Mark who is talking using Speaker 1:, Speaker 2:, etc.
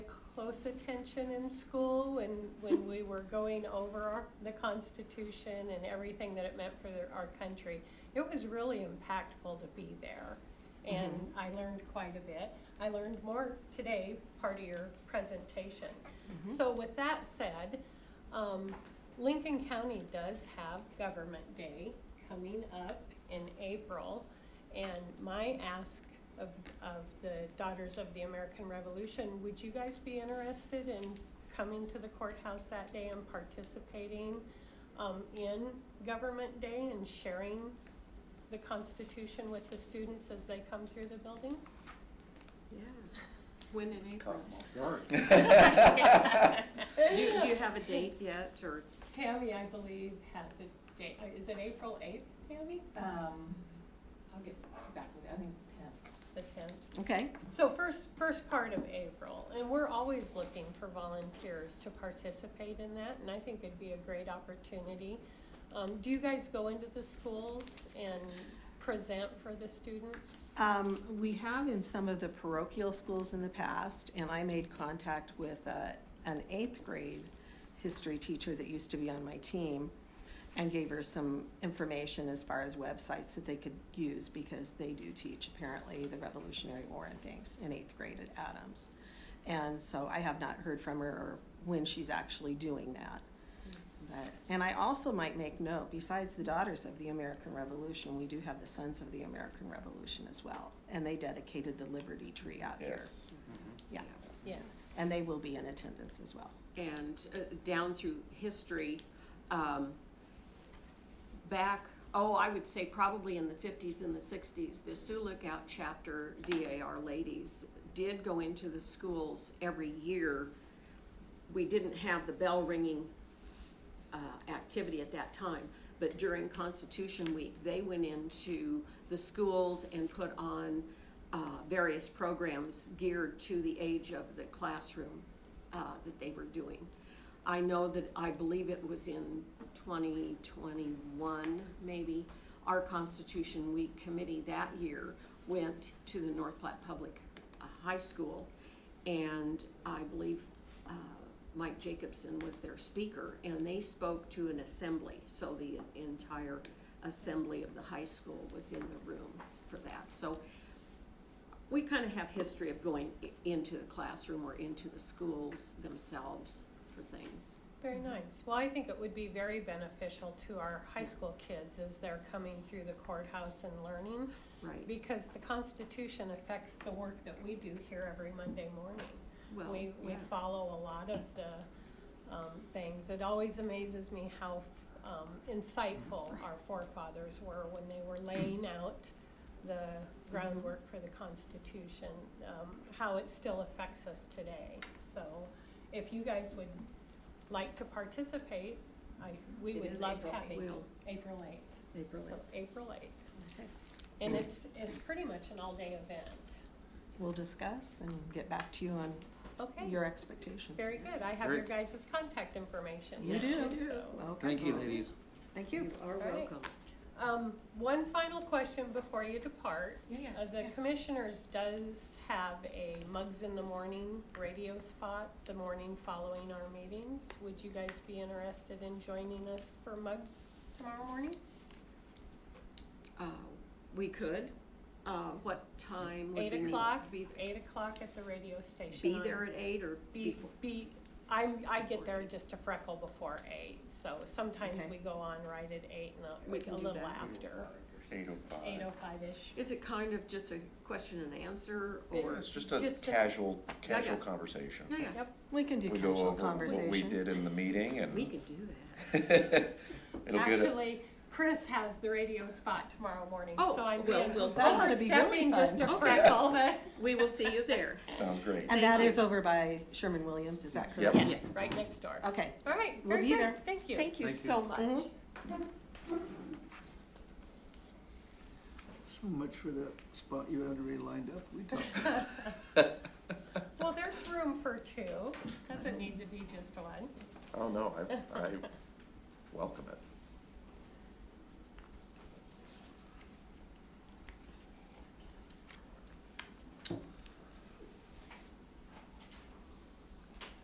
Speaker 1: close attention in school when, when we were going over our- the Constitution and everything that it meant for their- our country. It was really impactful to be there, and I learned quite a bit. I learned more today, part of your presentation. So with that said, um, Lincoln County does have Government Day coming up in April. And my ask of, of the Daughters of the American Revolution, would you guys be interested in coming to the courthouse that day and participating um, in Government Day and sharing the Constitution with the students as they come through the building?
Speaker 2: Yeah. When in April? Do,
Speaker 1: Tammy,
Speaker 2: do you have a date yet, or?
Speaker 1: I believe, has a date, Uh, is it April eighth, Tammy?
Speaker 3: Um, I'll get back with you, I think it's the tenth.
Speaker 1: The tenth?
Speaker 2: Okay.
Speaker 1: So first, first part of April, and we're always looking for volunteers to participate in that, and I think it'd be a great opportunity. Um, do you guys go into the schools and present for the students?
Speaker 4: Um, we have in some of the parochial schools in the past, and I made contact with a, an eighth grade history teacher that used to be on my team and gave her some information as far as websites that they could use because they do teach apparently the Revolutionary War and things in eighth grade at Adams. And so I have not heard from her or when she's actually doing that. But, and I also might make note, besides the Daughters of the American Revolution, we do have the Sons of the American Revolution as well. And they dedicated the Liberty Tree out here.
Speaker 5: Yes.
Speaker 4: Yeah,
Speaker 1: Yes.
Speaker 4: and they will be in attendance as well.
Speaker 2: And uh, down through history, um, back, oh, I would say probably in the fifties and the sixties, the Sioux Lookout Chapter DAR ladies did go into the schools every year. We didn't have the bell ringing uh, activity at that time. But during Constitution Week, they went into the schools and put on uh, various programs geared to the age of the classroom uh, that they were doing. I know that, I believe it was in 2021, maybe, our Constitution Week committee that year went to the North Platte Public uh, High School, and I believe uh, Mike Jacobson was their speaker, and they spoke to an assembly, so the entire assembly of the high school was in the room for that. So we kind of have history of going i- into the classroom or into the schools themselves for things.
Speaker 1: Very nice. Well, I think it would be very beneficial to our high school kids as they're coming through the courthouse and learning,
Speaker 2: Right,
Speaker 1: because the Constitution affects the work that we do here every Monday morning.
Speaker 2: well,
Speaker 1: We, we
Speaker 2: yeah.
Speaker 1: follow a lot of the, um, things. It always amazes me how, f- um, insightful our forefathers were when they were laying out the groundwork for the Constitution, um, how it still affects us today. So if you guys would like to participate, I, we
Speaker 3: It
Speaker 1: would
Speaker 3: is
Speaker 1: love
Speaker 3: April
Speaker 1: having you.
Speaker 2: Will.
Speaker 1: April eighth.
Speaker 4: April
Speaker 1: So, April eighth.
Speaker 4: Okay.
Speaker 1: And it's, it's pretty much an all-day event.
Speaker 4: We'll discuss and get back to you on
Speaker 1: Okay.
Speaker 4: your expectations.
Speaker 1: Very good, I have
Speaker 5: Very-
Speaker 1: your guys' contact information.
Speaker 4: You
Speaker 1: So-
Speaker 4: do. Okay.
Speaker 5: Thank you, ladies.
Speaker 4: Thank you.
Speaker 2: You are
Speaker 1: right.
Speaker 2: welcome.
Speaker 1: Um, one final question before you depart.
Speaker 3: Yeah,
Speaker 1: Uh, the commissioners does have a Mugs in the Morning radio spot the morning following our meetings. Would you guys be interested in joining us for Mugs tomorrow morning?
Speaker 2: Uh, we could, uh, what time would we
Speaker 1: Eight
Speaker 2: need?
Speaker 1: o'clock,
Speaker 2: Be,
Speaker 1: eight o'clock at the radio station.
Speaker 2: be
Speaker 1: on-
Speaker 2: there at eight or
Speaker 1: Be,
Speaker 2: before?
Speaker 1: be, I'm, I get there just a freckle before eight, so sometimes
Speaker 4: Okay.
Speaker 1: we go on right at eight and
Speaker 2: We
Speaker 1: a-
Speaker 2: can
Speaker 1: a
Speaker 2: do
Speaker 1: little
Speaker 2: that.
Speaker 1: after,
Speaker 5: Eight oh
Speaker 1: eight oh five-ish.
Speaker 2: Is it kind of just a question and answer or?
Speaker 5: It's just a
Speaker 1: Just a-
Speaker 5: casual, casual
Speaker 2: yeah.
Speaker 5: conversation.
Speaker 2: Yeah, yeah,
Speaker 1: Yep,
Speaker 4: We can do
Speaker 5: We go
Speaker 4: casual
Speaker 5: over what we
Speaker 4: conversation.
Speaker 5: did in the meeting and
Speaker 2: we could do that.
Speaker 5: it'll get it.
Speaker 1: Actually, Chris has the radio spot tomorrow morning,
Speaker 2: Oh,
Speaker 1: so I'm
Speaker 2: well,
Speaker 1: being
Speaker 2: well,
Speaker 4: that ought to be really
Speaker 1: overstepping just a
Speaker 4: fun.
Speaker 2: Okay.
Speaker 1: freckle, but,
Speaker 2: We will see you there.
Speaker 5: Sounds great.
Speaker 4: And that
Speaker 2: Thank
Speaker 4: is over by Sherman Williams, is that
Speaker 5: Yep.
Speaker 4: correct?
Speaker 1: yes, right next door.
Speaker 4: Okay.
Speaker 1: All right,
Speaker 4: We'll
Speaker 1: very
Speaker 4: be
Speaker 1: good,
Speaker 4: there.
Speaker 1: thank you.
Speaker 2: Thank you
Speaker 5: Thank you.
Speaker 2: so much.
Speaker 4: Mhm.
Speaker 6: So much for that spot you had already lined up. We talked
Speaker 1: Well, there's room for two, doesn't need to be just one.
Speaker 5: Oh, no, I, I welcome it.